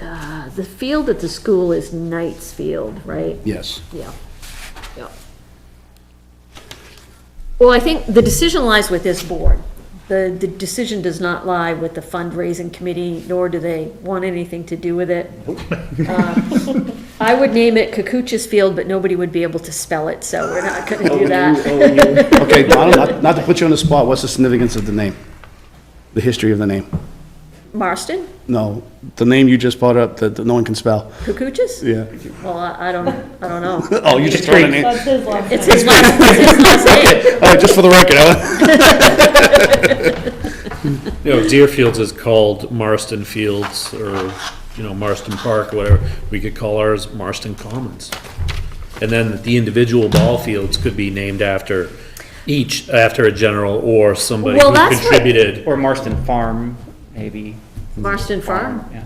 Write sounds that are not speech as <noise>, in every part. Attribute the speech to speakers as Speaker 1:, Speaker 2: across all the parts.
Speaker 1: uh, the field at the school is Knights Field, right?
Speaker 2: Yes.
Speaker 1: Yeah, yeah. Well, I think the decision lies with this board. The, the decision does not lie with the fundraising committee, nor do they want anything to do with it. Uh, I would name it Cacuchas Field, but nobody would be able to spell it, so we're not gonna do that.
Speaker 2: <laughs> Okay, Donald, not- not to put you on the spot, what's the significance of the name? The history of the name?
Speaker 1: Marston,
Speaker 2: No, the name you just brought up that that no one can spell.
Speaker 1: Cacuchas?
Speaker 2: Yeah.
Speaker 1: Well, I, I don't, I don't
Speaker 2: <laughs>
Speaker 1: know.
Speaker 2: Oh, you just threw a name.
Speaker 3: That's his last
Speaker 1: It's his last, it's his last name.
Speaker 2: All right, just for the record, I-
Speaker 4: You know, Deerfields is called Marston Fields or, you know, Marston Park, or whatever. We could call ours Marston Commons. And then the individual ball fields could be named after each, after a general or somebody
Speaker 1: Well,
Speaker 4: who
Speaker 1: that's what-
Speaker 4: contributed.
Speaker 5: Or Marston Farm, maybe.
Speaker 1: Marston Farm,
Speaker 5: Yeah.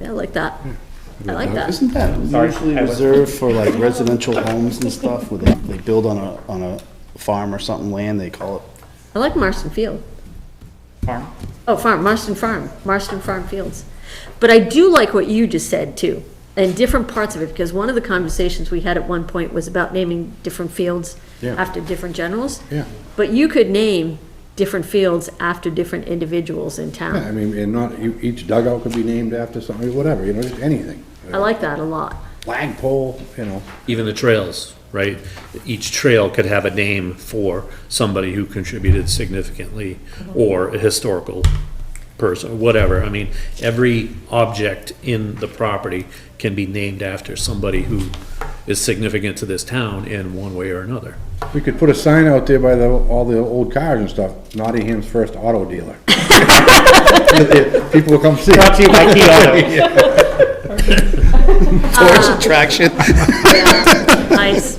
Speaker 1: yeah, I like that.
Speaker 2: Hmm.
Speaker 1: I like that.
Speaker 2: isn't that
Speaker 5: Sorry,
Speaker 2: usually
Speaker 5: I was-
Speaker 2: reserved for like residential homes and stuff where they, they build on a, on a farm or something, land, they call it?
Speaker 1: I like Marston Field.
Speaker 5: Farm.
Speaker 1: Oh, farm, Marston Farm, Marston Farm Fields. But I do like what you just said too, and different parts of it, because one of the conversations we had at one point was about naming different fields
Speaker 2: Yeah.
Speaker 1: after different generals.
Speaker 6: Yeah.
Speaker 1: But you could name different fields after different individuals in
Speaker 6: Yeah, I
Speaker 1: town.
Speaker 6: mean, and not, you- each dugout could be named after something, whatever, you know, just anything.
Speaker 1: I like that a lot.
Speaker 6: Flagpole, you know.
Speaker 4: Even the trails, right? Each trail could have a name for somebody who contributed significantly or a historical person, whatever. I mean, every object in the property can be named after somebody who is significant to this town in one way or another.
Speaker 6: We could put a sign out there by the, all the old cars and stuff, Nottingham's first auto dealer. <laughs> People will come see.
Speaker 5: Brought to you by Key Auto.
Speaker 2: Tourist attraction.
Speaker 1: Nice.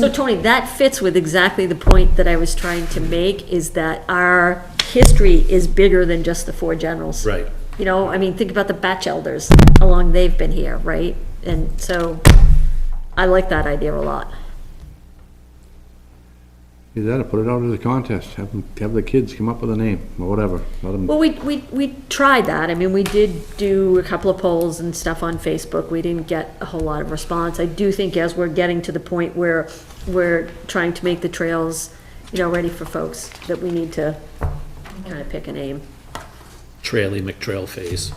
Speaker 1: So Tony, that fits with exactly the point that I was trying to make, is that our history is bigger than just the four generals.
Speaker 4: Right.
Speaker 1: You know, I mean, think about the Batch Elders, how long they've been here, right? And so, I like that idea a lot.
Speaker 7: Either that or put it out as a contest, have, 'em- have the kids come up with a name, or whatever, let them,
Speaker 1: Well, we, we, we tried that, I mean, we did do a couple of polls and stuff on Facebook, we didn't get a whole lot of response. I do think as we're getting to the point where we're trying to make the trails, you know, ready for folks, that we need to kind of pick a name.
Speaker 4: Traily McTrail Face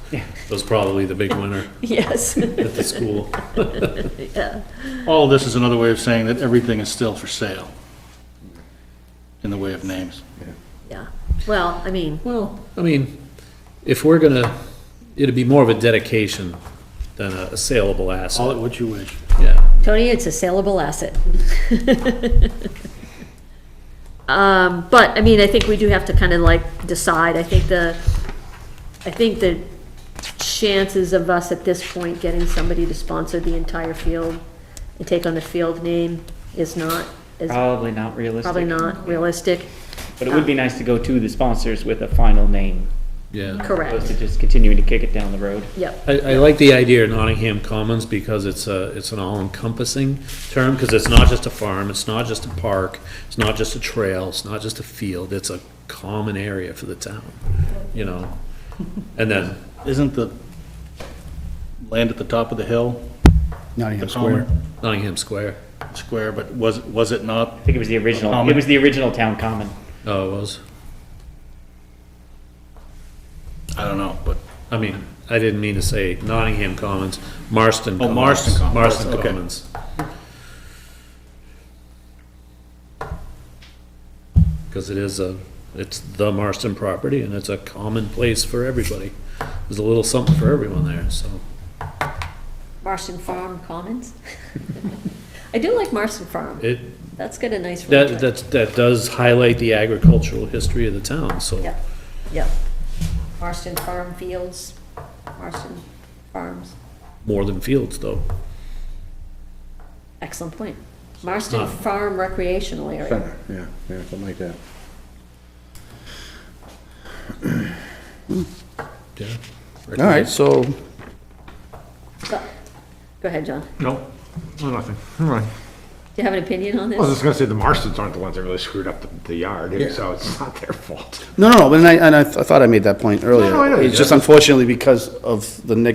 Speaker 4: was probably the big winner
Speaker 1: Yes.
Speaker 4: at the school.
Speaker 8: All of this is another way of saying that everything is still for sale in the way of names.
Speaker 1: <laughs> Yeah, well, I mean,
Speaker 4: Well, I mean, if we're gonna, it'd be more of a dedication than a saleable
Speaker 8: Call it
Speaker 4: asset,
Speaker 8: what you wish.
Speaker 4: yeah.
Speaker 1: Tony, it's a saleable asset. <laughs> Um, but, I mean, I think we do have to kind of like decide, I think the, I think the chances of us at this point getting somebody to sponsor the entire field and take on the field name is not, is
Speaker 5: Probably not realistic.
Speaker 1: probably not realistic,
Speaker 5: But it would be nice to go to the sponsors with a final name,
Speaker 4: Yeah.
Speaker 5: opposed to
Speaker 1: correct,
Speaker 5: just continuing to kick it down the road.
Speaker 1: yep,
Speaker 4: I, I like the idea of Nottingham Commons because it's a, it's an all-encompassing term, because it's not just a farm, it's not just a park, it's not just a trail, it's not just a field, it's a common area for the town, you know? And then,
Speaker 8: Isn't the land at the top of the hill, the
Speaker 2: Nottingham Square.
Speaker 8: Palmer
Speaker 4: Nottingham Square,
Speaker 8: Square, but was, was it not?
Speaker 5: I think it was the original, it
Speaker 8: Common.
Speaker 5: was the original town common.
Speaker 4: oh, it was,
Speaker 8: I don't know, but
Speaker 4: I mean, I didn't mean to say Nottingham Commons, Marston
Speaker 8: Oh,
Speaker 4: Commons.
Speaker 8: Marston Commons,
Speaker 4: Marston
Speaker 8: okay.
Speaker 4: Commons. Because it is a, it's the Marston property, and it's a common place for everybody. There's a little something for everyone there, so.
Speaker 1: Marston Farm <laughs> Commons. I do like Marston Farm,
Speaker 4: It,
Speaker 1: that's got a nice. ring to
Speaker 4: that,
Speaker 1: it.
Speaker 4: that, that does highlight the agricultural history of the town, so.
Speaker 1: Yep, yep. Marston Farm Fields, Marston Farms,
Speaker 4: More than fields, though.
Speaker 1: excellent point. Marston
Speaker 4: Huh.
Speaker 1: Farm recreational area.
Speaker 6: Center, yeah, yeah, something like that.
Speaker 4: Yeah.
Speaker 2: All right, so
Speaker 1: So- Go ahead, John. Do
Speaker 7: no, no, nothing, all right.
Speaker 1: you have an opinion on
Speaker 7: I was
Speaker 1: this?
Speaker 7: just gonna say, the Marstons aren't the ones that really screwed up the- the yard, so it's not their fault.
Speaker 2: No, no, no, but I, and I, I thought I made that point earlier.
Speaker 7: no, I know you
Speaker 2: It's just
Speaker 7: did.
Speaker 2: unfortunately because of the negative